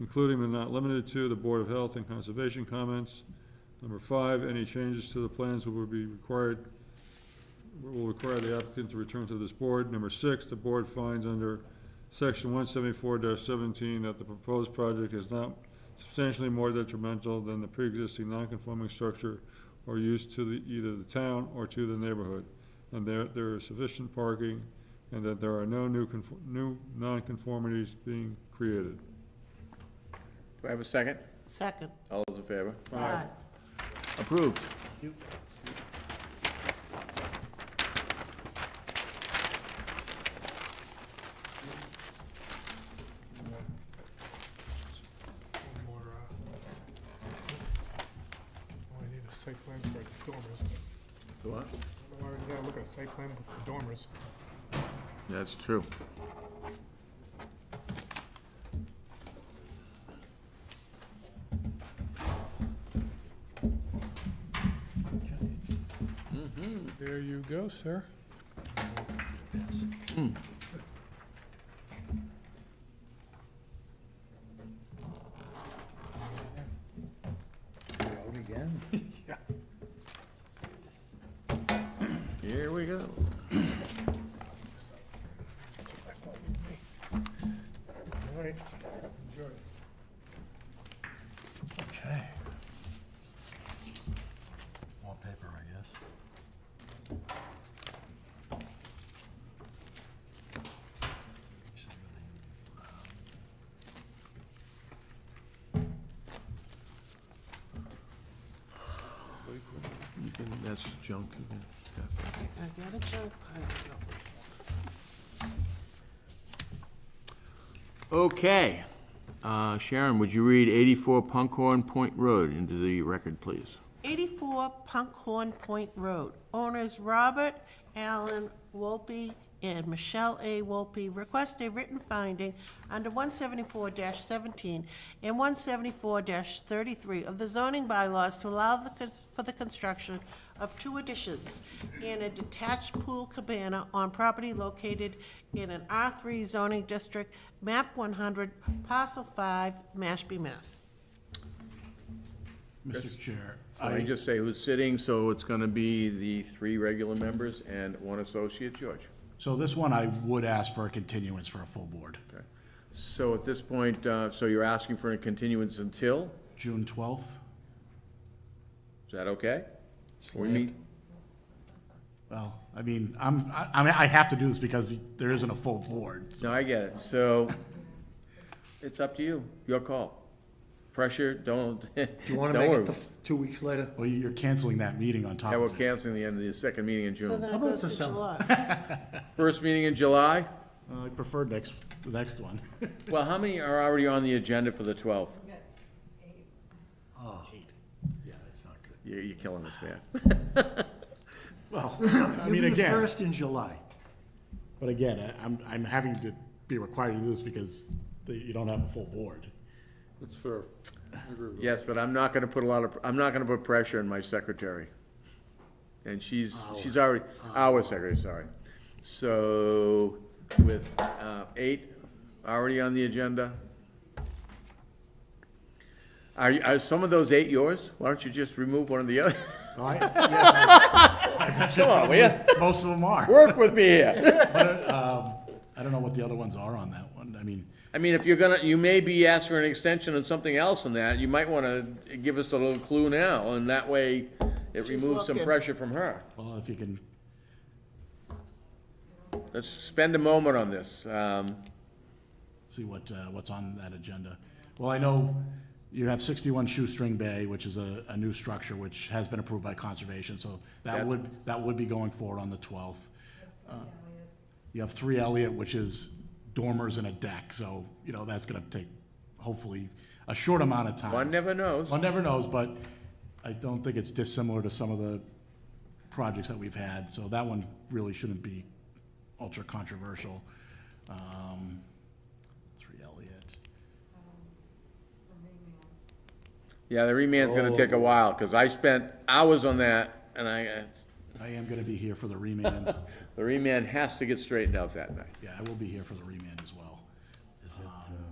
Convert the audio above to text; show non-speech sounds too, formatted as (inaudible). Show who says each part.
Speaker 1: including but not limited to the Board of Health and Conservation comments. Number five, any changes to the plans will be required, will require the applicant to return to this board. Number six, the board finds under section one seventy-four seventeen that the proposed project is not substantially more detrimental than the pre-existing non-conforming structure or use to the, either the town or to the neighborhood, and there, there is sufficient parking, and that there are no new, confo- new nonconformities being created.
Speaker 2: Do I have a second?
Speaker 3: Second.
Speaker 2: All those in favor?
Speaker 3: Aye.
Speaker 2: Approved.
Speaker 4: One more, uh, oh, I need a site plan for the dormers.
Speaker 2: What?
Speaker 4: I already gotta look at a site plan for the dormers.
Speaker 2: That's true.
Speaker 4: Mm-hmm. There you go, sir.
Speaker 5: Hmm.
Speaker 4: (laughs)
Speaker 5: Out again?
Speaker 4: (laughs)
Speaker 2: Here we go.
Speaker 4: All right, enjoy.
Speaker 5: Okay. More paper, I guess.
Speaker 2: You can, that's junk. you can- yeah.
Speaker 3: I got a junk pile.
Speaker 2: Okay. Uh, Sharon, would you read 84 Punkhorn Point Road into the record, please?
Speaker 3: 84 Punkhorn Point Road. Owners Robert Allen Wolpe and Michelle A. Wolpe request a written finding under 174-17 and 174-33 of the zoning bylaws to allow the cons- for the construction of two additions and a detached pool cabana on property located in an R3 zoning district, map 100, parcel 5, Mashpee, Mass.
Speaker 5: Mr. Chair,
Speaker 2: Let me
Speaker 5: I,
Speaker 2: just say who's sitting, so it's going to be the three regular members and one associate, George.
Speaker 5: so this one, I would ask for a continuance for a full board.
Speaker 2: Okay. So at this point, uh, so you're asking for a continuance until?
Speaker 5: June 12th?
Speaker 2: Is that okay? We meet,
Speaker 5: Well, I mean, I'm, I, I mean, I have to do this because there isn't a full board.
Speaker 2: no, I get it, so it's up to you, your call. Pressure, don't, (laughs) don't
Speaker 6: You want to make it
Speaker 2: worry.
Speaker 6: the f- two weeks later?
Speaker 5: Well, you're canceling that meeting on top
Speaker 2: Yeah, we're
Speaker 5: of it.
Speaker 2: canceling the end of the second meeting in
Speaker 3: So
Speaker 2: June.
Speaker 3: then it
Speaker 6: about
Speaker 3: goes to
Speaker 6: the summer? (laughs)
Speaker 3: July.
Speaker 2: First meeting in July?
Speaker 5: Uh, I prefer next, the next one. (laughs)
Speaker 2: Well, how many are already on the agenda for the twelfth?
Speaker 6: Oh, yeah, that's not good.
Speaker 2: You're, you're killing us, man.
Speaker 5: Well, I mean,
Speaker 6: Maybe the
Speaker 5: again,
Speaker 6: First in July.
Speaker 5: but again, I- I'm, I'm having to be required to do this because the- you don't have a full board.
Speaker 1: That's fair. I agree with that.
Speaker 2: (laughs) Yes, but I'm not gonna put a lot of, I'm not gonna put pressure on my secretary. And she's, she's already, our secretary, sorry. So with, uh, eight already on the agenda. Are, you- are some of those eight yours? Why don't you just remove one of the other?
Speaker 5: So I- (laughs)
Speaker 2: Come on, will ya?
Speaker 5: Most of them are.
Speaker 2: (laughs) Work with me here.
Speaker 5: I don't know what the other ones are on that one. I mean,
Speaker 2: I mean, if you're gonna, you may be asked for an extension on something else on that, you might wanna give us a little clue now, and that way it removes some
Speaker 3: looking.
Speaker 2: pressure from her.
Speaker 5: well, if you can,
Speaker 2: Let's spend a moment on this. Um,
Speaker 5: see what, uh, what's on that agenda. Well, I know you have sixty-one Shoestring Bay, which is a, a new structure which has been approved by conservation, so that
Speaker 2: That's-
Speaker 5: would, that would be going forward on the twelfth. Uh, You have three Elliott, which is dormers and a deck, so, you know, that's gonna take hopefully a short amount of time.
Speaker 2: One never knows.
Speaker 5: One never knows, but I don't think it's dissimilar to some of the projects that we've had, so that one really shouldn't be ultra controversial. Um, Three Elliott.
Speaker 2: Yeah, the remand's gonna take a while, because I spent hours on that, and I, uh,
Speaker 5: I am gonna be here for the remand.
Speaker 2: the remand has to get straightened out that night.
Speaker 5: Yeah, I will be here for the remand as well.
Speaker 6: Is it, uh,